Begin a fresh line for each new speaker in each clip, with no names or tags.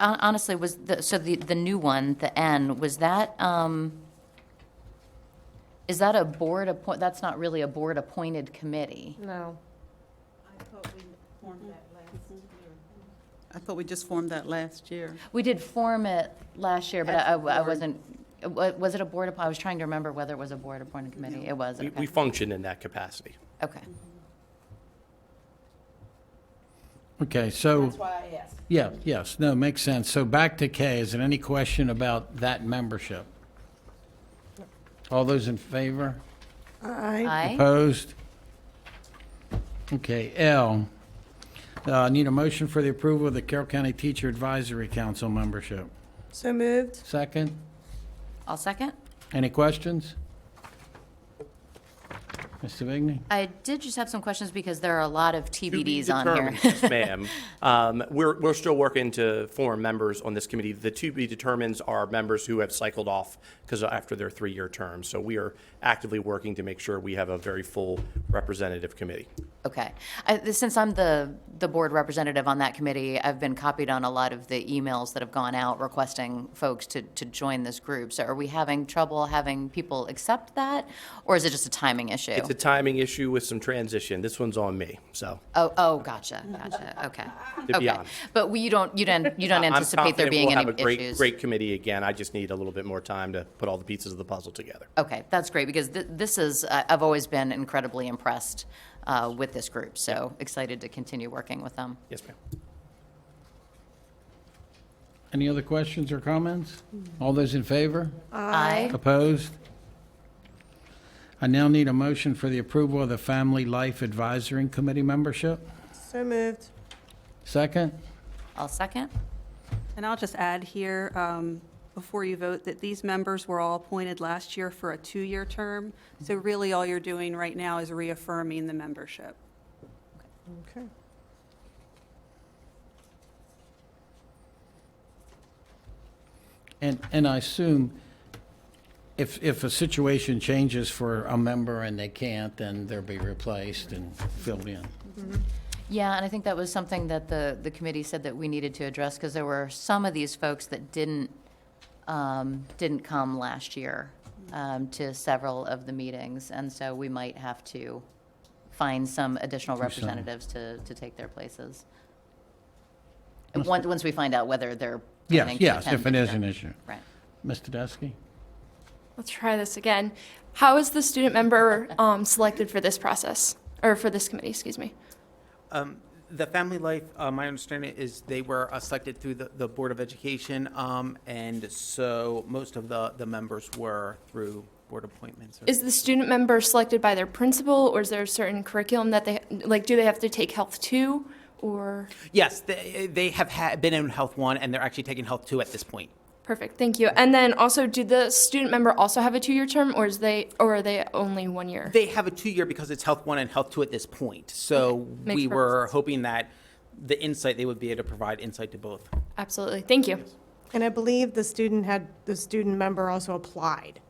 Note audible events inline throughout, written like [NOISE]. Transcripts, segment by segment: hon- honestly, was the, so the, the new one, the N, was that, um, is that a board appoint, that's not really a board-appointed committee?
No.
I thought we formed that last year. I thought we just formed that last year.
We did form it last year, but I,
As a
I
board.
wasn't, wa- was it a board, app- I was trying to remember whether it was a board-appointed committee. It was,
We-
okay.
We function in that capacity.
Okay.
Okay, so,
why I asked.
yeah, yes, no, makes sense. So back to K, is there any question about that membership? All those in favor?
Aye?
Opposed? Okay, L, uh, need a motion for the approval of the Carroll County Teacher Advisory Council membership.
So moved.
Second,
I'll second.
any questions? Mr. Vigney?
I did just have some questions because there are a lot of
To be
TBDs on here.
determined, yes,
[LAUGHS]
ma'am. Um, We're, we're still working to form members on this committee. The to be determines are members who have cycled off because after their three-year term. So we are actively working to make sure we have a very full representative committee.
Okay. I- th- Since I'm the, the board representative on that committee, I've been copied on a lot of the emails that have gone out requesting folks to, to join this group. So are we having trouble having people accept that? Or is it just a timing issue?
It's a timing issue with some transition. This one's on me, so.
Oh, oh, gotcha, gotcha, okay.
To be
Okay.
honest.
But we, you don't, you don't, you don't
I'm
anticipate there
confident
being
we'll
any
have a great-
issues?
Great committee again. I just need a little bit more time to put all the pieces of the puzzle together.
Okay, that's great, because thi- this is, I- I've always been incredibly impressed uh, with this group, so excited to continue working with them.
Yes, ma'am.
Any other questions or comments? All those in favor?
Aye.
Opposed? I now need a motion for the approval of the Family Life Advisory Committee membership.
So moved.
Second?
I'll second.
And I'll just add here, um, before you vote, that these members were all appointed last year for a two-year term. So really, all you're doing right now is reaffirming the membership.
Okay.
And, and I assume if, if a situation changes for a member and they can't, then they'll be replaced and filled in.
Yeah, and I think that was something that the, the committee said that we needed to address, because there were some of these folks that didn't, um, didn't come last year um, to several of the meetings, and so we might have to find some additional representatives to, to take their places. And Once, once we find out whether they're.
Yes,
planning to
yes, if it
attend
is
next
an
year.
issue.
Right.
Mr. Deskey?
Let's try this again. How is the student member um, selected for this process, or for this committee, excuse me?
Um, The Family Life, uh, my understanding is they were uh, selected through the, the Board of Education, um, and so most of the, the members were through board appointments. or-
Is the student member selected by their principal, or is there a certain curriculum that they, like, do they have to take health two, or?
Yes, they, they have ha been in Health One, and they're actually taking Health Two at this point.
Perfect, thank you. And then also, do the student member also have a two-year term, or is they, or are they only one year?
They have a two-year because it's Health One and Health Two at this point, so
makes
we
perfect
were
sense.
hoping that the insight, they would be able to provide insight to both.
Absolutely, thank you.
And I believe the student had, the student member also applied.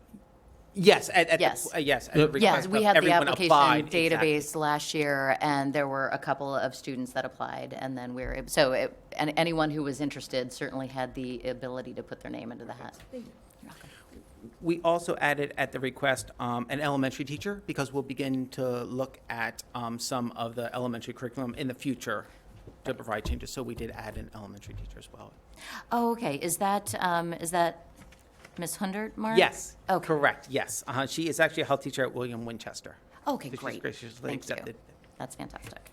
Yes, at, at,
Yes.
the- uh, yes. at the
Yep.
Yes,
request
we
of
had the
everyone
application
applied, exactly.
database last year, and there were a couple of students that applied, and then we were, ab- so, it- and anyone who was interested certainly had the ability to put their name into the hat.
We also added at the request um, an elementary teacher because we'll begin to look at um, some of the elementary curriculum in the future to provide changes. So we did add an elementary teacher as well.
Oh, okay, is that, um, is that Ms. Hundert, Mark?
Yes,
Okay.
correct, yes. Uh-huh, She is actually a health teacher at William Winchester.
Okay,
So she's
great.
graciously
Thank you.
accepted.
That's fantastic.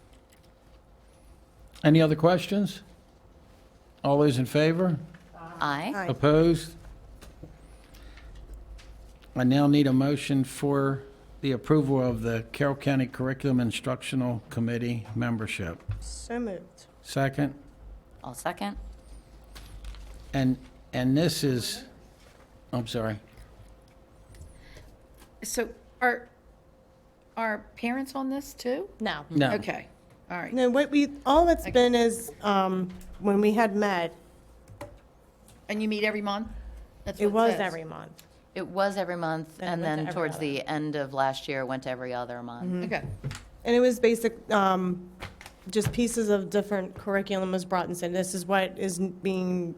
Any other questions? All those in favor?
Aye.
Aye.
Opposed? I now need a motion for the approval of the Carroll County Curriculum Instructional Committee membership.
So moved.
Second?
I'll second.
And, and this is, I'm sorry.
So are, are parents on this too?
No.
No.
Okay, all right.
No, what we, all it's been is, um, when we had met,
And you meet every month? That's
it
what
was
says.
every month.
It was every month,
Then it
and
went to
then
every
towards
other.
the end of last year, it went to every other month.
Okay,
And it was basic, um, just pieces of different curriculum was brought and said, this is what is being